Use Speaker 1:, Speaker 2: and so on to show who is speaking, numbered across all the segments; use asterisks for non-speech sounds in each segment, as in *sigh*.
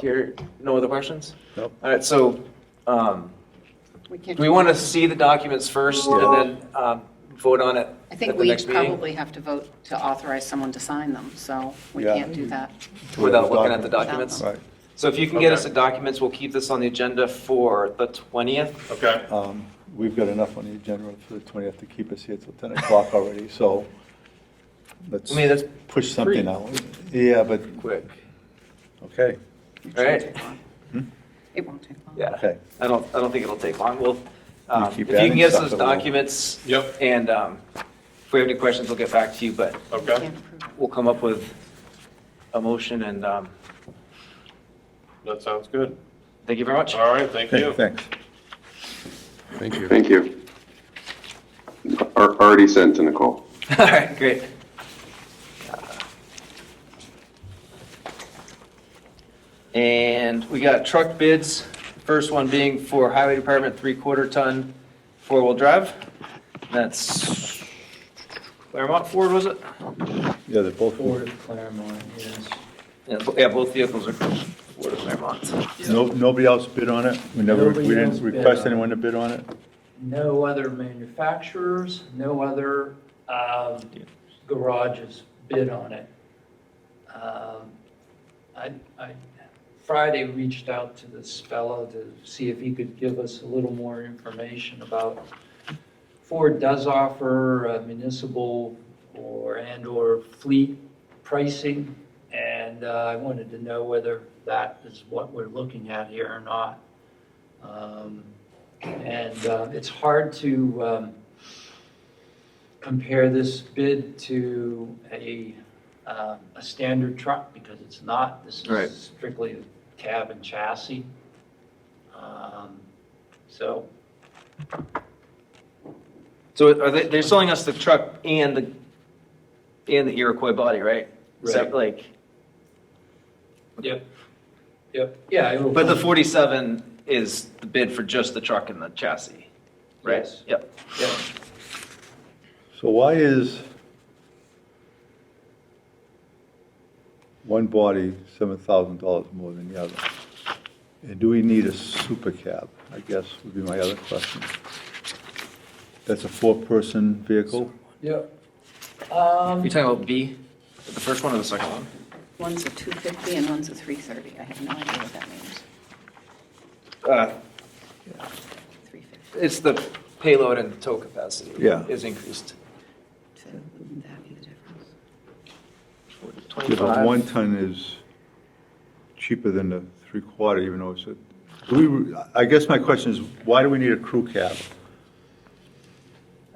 Speaker 1: Here, no other questions?
Speaker 2: Nope.
Speaker 1: All right, so, um,
Speaker 3: We can't.
Speaker 1: do we want to see the documents first and then, um, vote on it
Speaker 3: I
Speaker 1: at
Speaker 3: think
Speaker 1: the
Speaker 3: we
Speaker 1: next meeting?
Speaker 3: probably have to vote to authorize someone to sign them, so we
Speaker 2: Yeah.
Speaker 3: can't do that.
Speaker 1: Without looking at the
Speaker 3: documents.
Speaker 1: documents?
Speaker 2: Right.
Speaker 1: So if you can get us the
Speaker 4: Okay.
Speaker 1: documents, we'll keep this on the agenda for the twentieth.
Speaker 4: Okay.
Speaker 2: Um, We've got enough on the agenda for the 20th to keep us here till 10 o'clock already, so let's
Speaker 1: I mean, that's
Speaker 2: push something
Speaker 1: pretty
Speaker 2: out. Yeah, but,
Speaker 1: Quick,
Speaker 2: okay, Hmm?
Speaker 3: It
Speaker 1: All right.
Speaker 3: shouldn't take long. It won't take long.
Speaker 1: yeah.
Speaker 2: okay.
Speaker 1: I don't, I don't think it'll take long. We'll, um, if you
Speaker 2: keep
Speaker 1: can
Speaker 2: adding
Speaker 1: get us
Speaker 2: stuff
Speaker 1: those
Speaker 2: that we'll-
Speaker 1: documents.
Speaker 4: Yep.
Speaker 1: And, um, if we have any questions, we'll get back to you, but
Speaker 3: We
Speaker 4: Okay,
Speaker 3: can't approve it.
Speaker 1: we'll come up with a motion and, um,
Speaker 4: that sounds good.
Speaker 1: thank you very much.
Speaker 4: All right, thank
Speaker 2: Okay,
Speaker 4: you.
Speaker 2: Thanks.
Speaker 5: Thank you.
Speaker 6: Thank you. Al- Already sent to Nicole.
Speaker 1: *laughs* All right, great. And we got truck bids, first one being for highway department, three-quarter ton, four-wheel drive. That's Claremont Ford, was it?
Speaker 2: Yeah, they're both,
Speaker 7: Ford Claremont, yes.
Speaker 1: Yeah, bo- Yeah, both vehicles are Ford Claremont.
Speaker 2: no, nobody else bid on it? We never, we
Speaker 7: Nobody else
Speaker 2: didn't
Speaker 7: bid
Speaker 2: request
Speaker 7: on it.
Speaker 2: anyone to bid on it?
Speaker 7: No other manufacturers, no other um, garages bid on it. Um, I, I, Friday reached out to this fellow to see if he could give us a little more information about, Ford does offer uh, municipal or, and/or fleet pricing, and uh, I wanted to know whether that is what we're looking at here or not. Um, and uh, it's hard to um, compare this bid to a, um, a standard truck because it's not. This
Speaker 1: Right.
Speaker 7: is strictly a cab and chassis. Um, So
Speaker 1: So are they, they're selling us the truck and the, and the Iroquois body, right? Is that
Speaker 7: Right.
Speaker 1: like,
Speaker 7: Yep, yep, yeah. it will-
Speaker 1: but the 47 is the bid for just the truck and the chassis, right?
Speaker 7: Yes.
Speaker 1: Yep.
Speaker 7: yeah.
Speaker 2: So why is one body $7,000 more than the other? And do we need a super cab, I guess would be my other question. That's a four-person vehicle?
Speaker 7: Yep.
Speaker 1: Are
Speaker 7: Um,
Speaker 1: you talking about B, the first one or the second one?
Speaker 3: One's a 250 and one's a 330. I have no idea what that means.
Speaker 1: Uh,
Speaker 3: 350
Speaker 1: It's the payload and tow capacity.
Speaker 2: Yeah.
Speaker 1: Is increased.
Speaker 3: So wouldn't that be the difference?
Speaker 2: Yeah, but
Speaker 1: 25.
Speaker 2: one ton is cheaper than the three-quarter, even though it's a, do we, I guess my question is, why do we need a crew cab?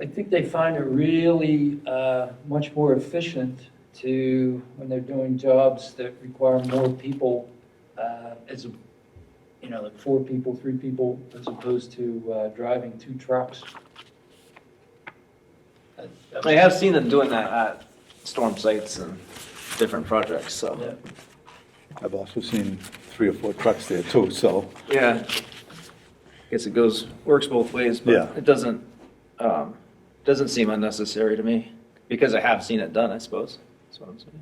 Speaker 7: I think they find it really uh, much more efficient to, when they're doing jobs that require more people, uh, as, a you know, like four people, three people, as opposed to uh, driving two trucks. That- that-
Speaker 1: I have seen them doing that at storm sites and different projects, so.
Speaker 7: yeah.
Speaker 2: I've also seen three or four trucks there too, so.
Speaker 1: Yeah. Guess it goes, works both ways,
Speaker 2: Yeah.
Speaker 1: but it doesn't, um, doesn't seem unnecessary to me, because I have seen it done, I suppose. That's what I'm saying.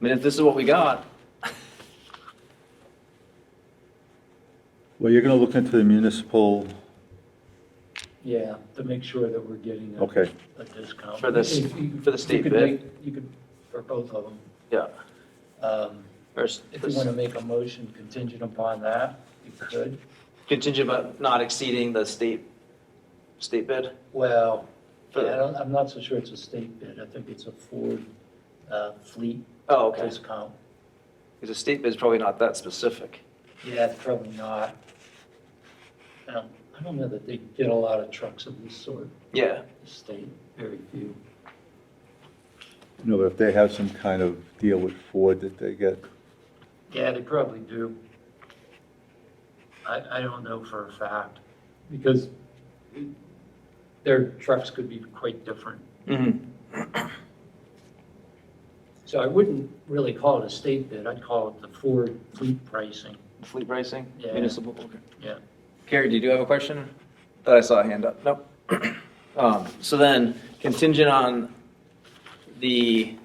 Speaker 1: I mean, if this is what we got,
Speaker 2: Well, you're gonna look into the municipal,
Speaker 7: Yeah, to make sure that we're getting a
Speaker 2: okay,
Speaker 7: a discount.
Speaker 1: For this-
Speaker 7: If you-
Speaker 1: for the state
Speaker 7: you could
Speaker 1: bid.
Speaker 7: make- You could, for both of them.
Speaker 1: yeah.
Speaker 7: Um,
Speaker 1: First,
Speaker 7: If you want to make a motion contingent upon that, you could.
Speaker 1: contingent but not exceeding the state, state bid?
Speaker 7: Well, I don't, I'm not so sure it's a state bid. I think it's a Ford uh, fleet
Speaker 1: Oh, okay,
Speaker 7: discount.
Speaker 1: because the state bid's probably not that specific.
Speaker 7: Yeah, it's probably not. I don't, I don't know that they get a lot of trucks of this sort,
Speaker 1: Yeah,
Speaker 7: the state, very few.
Speaker 2: you know, if they have some kind of deal with Ford that they get,
Speaker 7: Yeah, they probably do. I, I don't know for a fact, because their trucks could be quite different.
Speaker 1: mm-hmm,
Speaker 7: So I wouldn't really call it a state bid, I'd call it the Ford fleet pricing.
Speaker 1: fleet pricing,
Speaker 7: Yeah.
Speaker 1: municipal, okay.
Speaker 7: Yeah.
Speaker 1: Carrie, did you have a question? Thought I saw a hand up, nope. Um, so then contingent on the